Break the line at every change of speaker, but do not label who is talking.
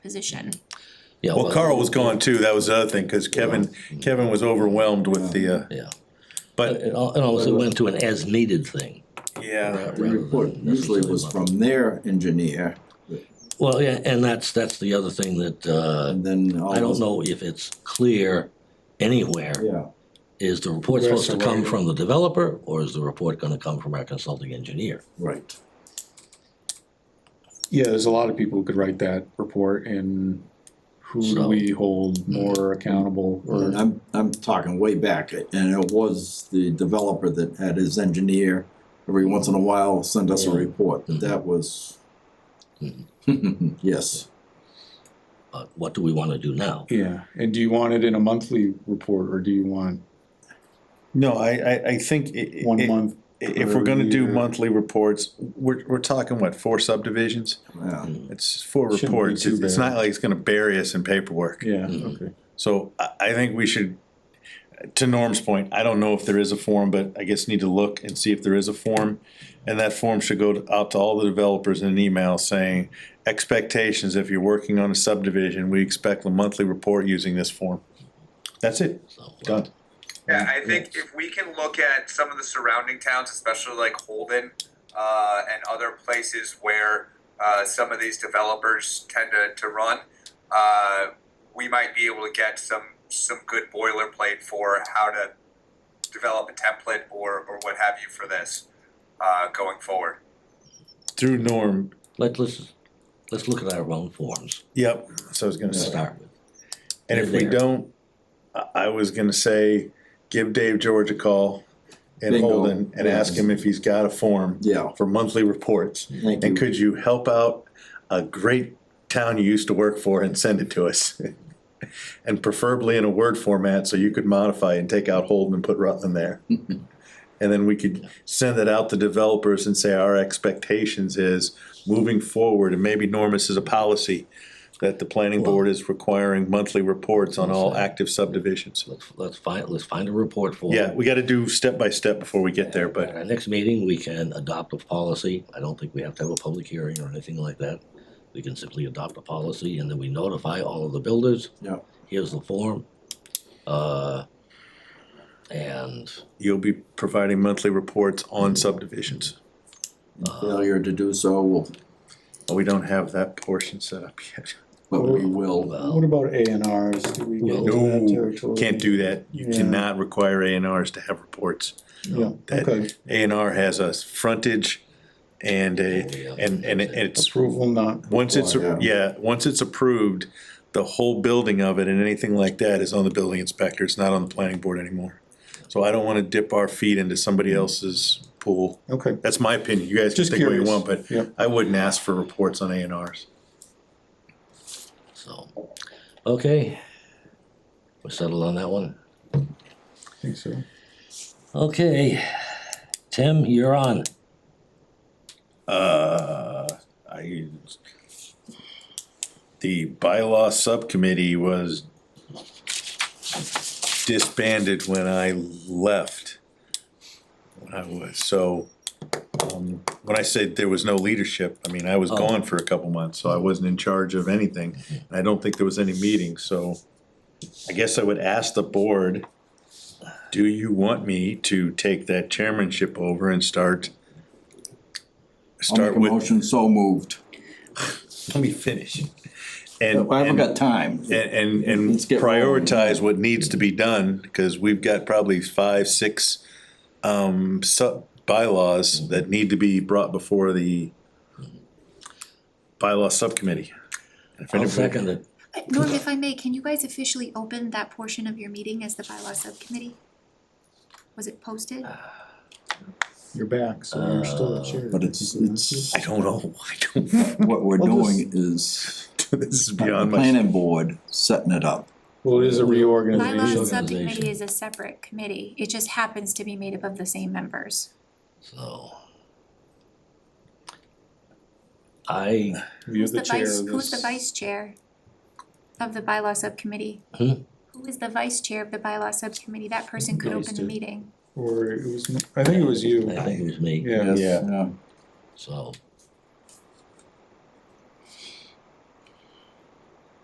position.
Yeah,
Well, Carl was gone too, that was the other thing, cause Kevin, Kevin was overwhelmed with the, uh,
Yeah,
but,
and al- and also went to an as-needed thing.
yeah.
The report usually was from their engineer,
Well, yeah, and that's, that's the other thing that, uh,
and then all
I don't
those-
know if it's clear anywhere.
Yeah,
Is the report
Where's
supposed to
the
come
writer?
from the developer, or is the report gonna come from our consulting engineer?
right.
Yeah, there's a lot of people who could write that report and who do
So-
we hold more accountable
And
or,
I'm, I'm talking way back, and it was the developer that had his engineer every once in a while send us a
Yeah.
report,
Mhm.
that was.
Mm-hmm.
Yes,
But what do we wanna do now?
yeah, and do you want it in a monthly report or do you want
No, I, I, I think i- i-
one
i-
month?
if we're gonna do
per year?
monthly reports, we're, we're talking, what, four subdivisions?
yeah,
It's four
Shouldn't be
reports,
too
it's it's
bad.
not like it's gonna bury us in paperwork.
Yeah,
Mhm.
okay.
So I, I think we should, to Norm's point, I don't know if there is a form, but I guess need to look and see if there is a form. And that form should go to- out to all the developers in an email saying, expectations, if you're working on a subdivision, we expect a monthly report using this form. That's it,
So, uh,
done.
Yeah, I think if we can look at some of the surrounding towns, especially like Holden, uh, and other places where, uh, some of these developers tend to, to run, uh, we might be able to get some, some good boilerplate for how to develop a template or, or what have you for this, uh, going forward.
Through Norm,
Let, let's, let's look at our own forms
yep, so I was gonna
to
say.
start with.
And if we
There.
don't, I, I was gonna say, give Dave George a call and
Bingo.
Holden and ask him if he's got a form
yeah,
for monthly reports.
thank
And
you,
could you help out a great town you used to work for and send it to us? And preferably in a Word format, so you could modify and take out Holden and put Rutland there. And then we could send it out to developers and say our expectations is moving forward, and maybe Normus is a policy that the planning board is requiring monthly reports on all active subdivisions.
Let's, let's find, let's find a report for.
Yeah, we gotta do step by step before we get there,
At
but
our next meeting, we can adopt a policy. I don't think we have to have a public hearing or anything like that. We can simply adopt a policy and then we notify all of the builders,
yeah,
here's the form. Uh, and,
you'll be providing monthly reports on subdivisions.
failure to do so, will-
Well, we don't have that portion set up yet.
but we
oh,
will,
What about A and Rs? Do we get into that
No,
territory?
can't do that. You
Yeah.
cannot require A and Rs to have reports.
Yeah,
That-
okay.
A and R has a frontage and
Yeah.
a, and, and it's,
Approval not.
once it's,
required.
yeah, once it's approved, the whole building of it and anything like that is on the building inspector. It's not on the planning board anymore. So I don't wanna dip our feet into somebody else's pool.
Okay.
That's my opinion. You guys can
Mm-hmm. Just
think what you
curious.
want, but
Yep.
I wouldn't ask for reports on A and Rs.
so, okay. We're settled on that one.
I think so.
Okay, Tim, you're on.
Uh, I, the bylaw subcommittee was disbanded when I left. When I was, so, um, when I said there was no leadership, I mean, I was
Oh.
gone for a couple months, so I wasn't in charge of anything. And I don't think there was any meeting, so I guess I would ask the board, do you want me to take that chairmanship over and start?
I'll make
Start
a
with
motion, so moved.
let me finish.
I
And,
haven't
and,
got time,
and, and
Let's get rolling.
prioritize what needs to be done, because we've got probably five, six, um, sub bylaws that need to be brought before the bylaw subcommittee. If
I'll
anybody-
second it.
Uh, Norm, if I may, can you guys officially open that portion of your meeting as the bylaw subcommittee? Was it posted?
Uh, You're back, so you're still the chair.
but it's, it's,
I don't know, I don't,
what we're
I'll just-
doing is
this is
the
beyond my,
planning board setting it up.
Well, it is a
Bylaw
reorganization.
subcommittee is a separate committee, it just happens to be made up of the same members.
So. I,
You're
Who's
the
the
chair
vice,
of
who's the
this.
vice chair of the bylaw subcommittee?
Hmm?
Who is the vice chair of the bylaw subcommittee? That person could
Nice
open the
to-
meeting.
Or it was, I think it was you.
I think it was me,
Yeah.
Yeah.
Yeah.
so,